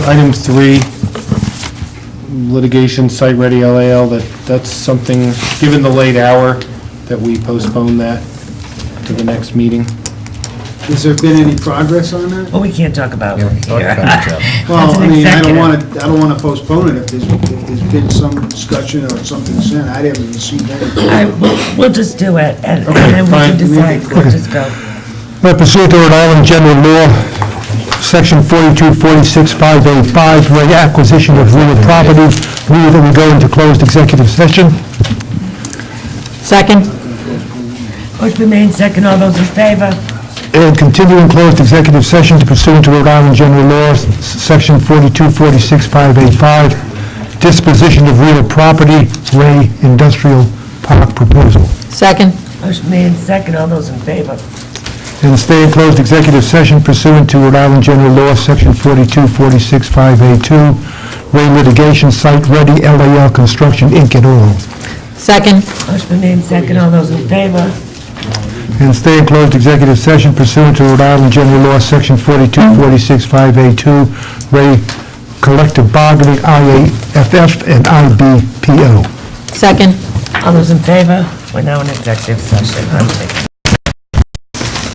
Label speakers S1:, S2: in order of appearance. S1: Item three, litigation site ready LAL, that, that's something, given the late hour, that we postpone that to the next meeting.
S2: Has there been any progress on that?
S3: Well, we can't talk about it here.
S2: Well,
S3: That's an
S2: I mean, I don't
S3: executive.
S2: want to, I don't want to postpone it if there's, if there's been some discussion or something sent. I haven't received any.
S3: All right, we'll- We'll just do it, and and then we
S1: fine.
S3: can decide, we'll just go.
S4: Right pursuant to Rhode Island General Law, Section 4246585, reg acquisition of real property, move that we go into closed executive session.
S5: Second?
S3: Motion been made, second, all those in favor?
S4: And continue in closed executive session to pursuant to Rhode Island General Law, s- Section 4246585, disposition of real property, Ray Industrial Park proposal.
S5: Second?
S3: Motion made, second, all those in favor?
S4: And stay in closed executive session pursuant to Rhode Island General Law, Section 4246582, Ray litigation site ready LAL Construction Inc. et al.
S5: Second?
S3: Motion been made, second, all those in favor?
S4: and stay in closed executive session pursuant to Rhode Island General Law, Section 4246582, Ray Collective Bargaining, IAFF and IBPO.
S5: Second?
S3: All those in favor? We're now in executive session. I'm taking-